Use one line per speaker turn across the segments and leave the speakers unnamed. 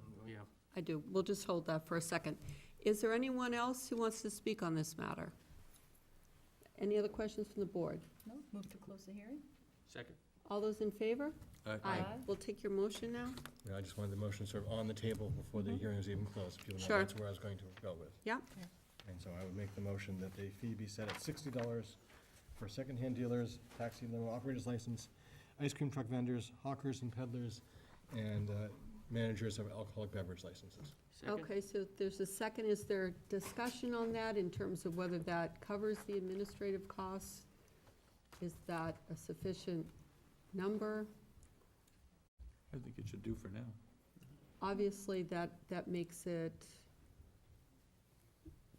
Oh,
I do. We'll just hold that for a second. Is there anyone else who wants to speak on this matter? Any other questions from the board?
No, move to close the hearing?
Second.
All those in favor?
Aye.
We'll take your motion now.
Yeah, I just wanted the motion sort of on the table before the
Mhm.
hearing is even closed, if you
Sure.
remember, that's where I was going to go with.
Yeah.
Yeah.
And so I would make the motion that the fee be set at sixty dollars for secondhand dealers, taxi limo operators license, ice cream truck vendors, hawkers and peddlers, and uh, managers of alcoholic beverage licenses.
Okay, so there's a second. Is there discussion on that in terms of whether that covers the administrative costs? Is that a sufficient number?
I think it should do for now.
Obviously, that, that makes it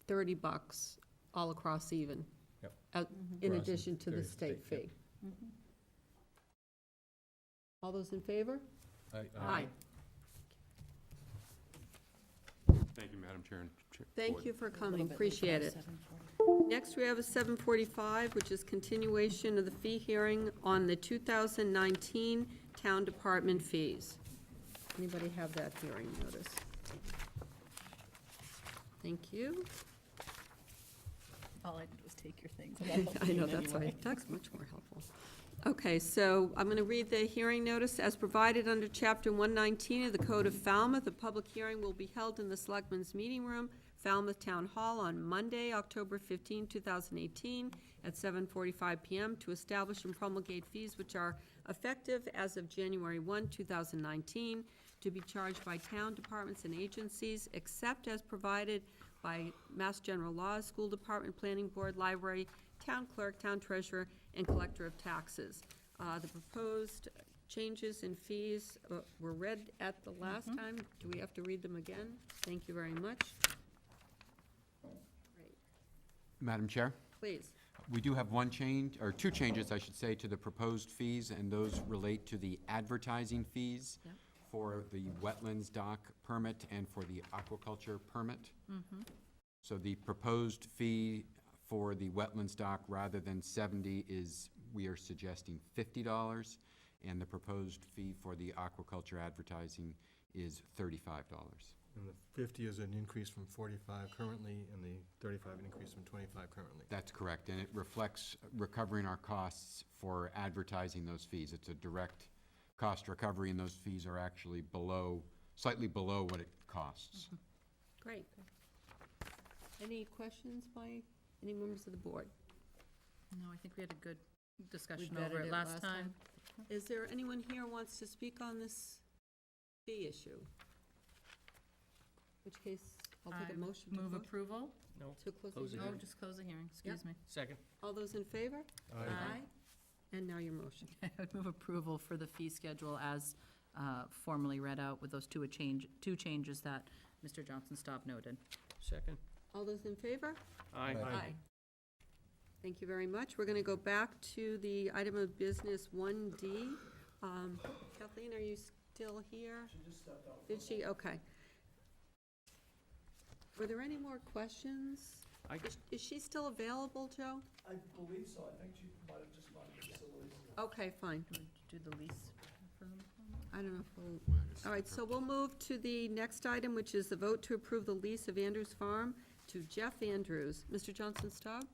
30 bucks all across even, in Mm-hmm.
For us,
addition to the
there's the
state
state, yep.
fee.
Mm-hmm.
All those in favor?
Aye.
Thank you, Madam Chair and Chair-
Thank
Board.
you for coming, appreciate it. Next, we have a 745, which is continuation of the fee hearing on the 2019 town department fees. Anybody have that hearing notice? Thank you.
All I did was take your things.
I know, that's why, that's much more helpful. Okay, so I'm going to read the hearing notice. As provided under Chapter 119 of the Code of Falmouth, the public hearing will be held in the Selectmen's Meeting Room, Falmouth Town Hall, on Monday, October 15, 2018, at 7:45 PM to establish and promulgate fees which are effective as of January 1, 2019, to be charged by town departments and agencies, except as provided by Mass General Law, School Department, Planning Board, Library, Town Clerk, Town Treasurer, and Collector of Taxes. Uh, The proposed changes in fees uh, were read at the last
Mm-hmm.
time. Do we have to read them again? Thank you very much. Great.
Madam Chair,
Please.
we do have one change, or two changes, I should say, to the proposed fees, and those relate to the advertising fees
Yep.
for the wetlands dock permit and for the aquaculture permit. So the proposed fee for the wetlands dock, rather than seventy, is, we are suggesting fifty dollars, and the proposed fee for the aquaculture advertising is thirty-five dollars.
And the fifty is an increase from forty-five currently, and the thirty-five an increase from twenty-five currently.
That's correct, and it reflects recovering our costs for advertising those fees. It's a direct cost recovery, and those fees are actually below, slightly below what it costs.
Great. Any questions by any members of the board?
No, I think we had a good
We
discussion
vetted
over it last time. Mm-hmm.
Is there anyone here wants to speak on this fee issue? Which case, I'll take
I
a motion to
Move
close.
approval?
No,
To close
Close
the
it.
No,
hearing.
just close the hearing, excuse me.
second.
All those in favor?
Aye.
And now your motion.
I would move approval for the fee schedule as uh, formally read out with those two a change, two changes that Mr. Johnson Staub noted.
Second.
All those in favor?
Aye.
Aye.
Thank you very much. We're going to go back to the item of business 1D. Um, Kathleen, are you still here? She just stepped out. Did she? Okay. Were there any more questions?
I-
Is- Is she still available, Joe?
I believe so, I think she might have just bought the facilities.
Okay, fine.
Do we do the lease for them?
I don't know if we'll All right, so we'll move to the next item, which is the vote to approve the lease of Andrews Farm to Jeff Andrews. Mr. Johnson Staub?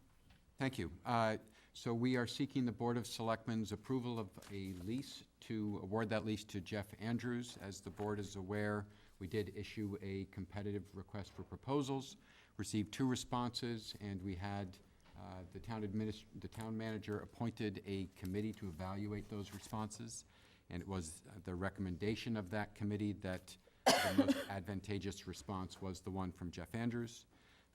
Thank you. Uh, So we are seeking the Board of Selectmen's approval of a lease to award that lease to Jeff Andrews. As the board is aware, we did issue a competitive request for proposals, received two responses, and we had uh, the town adminis, the town manager appointed a committee to evaluate those responses. And it was uh, the recommendation of that committee that the most advantageous response was the one from Jeff Andrews.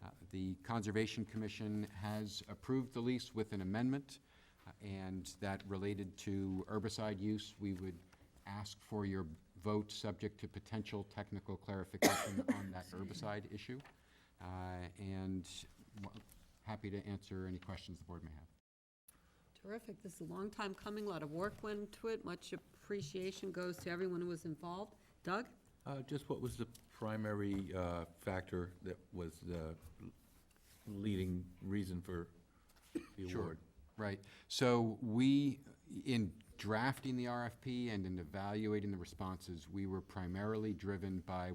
Uh, The Conservation Commission has approved the lease with an amendment, uh, and that related to herbicide use. We would ask for your vote, subject to potential technical clarification on that herbicide issue. Uh, And w- happy to answer any questions the board may have.
Terrific, this is a long time coming, a lot of work went into it, much appreciation goes to everyone who was involved. Doug?
Uh, Just what was the primary uh, factor that was the leading reason for the
Sure.
award?
Right. So we, in drafting the RFP and in evaluating the responses, we were primarily driven by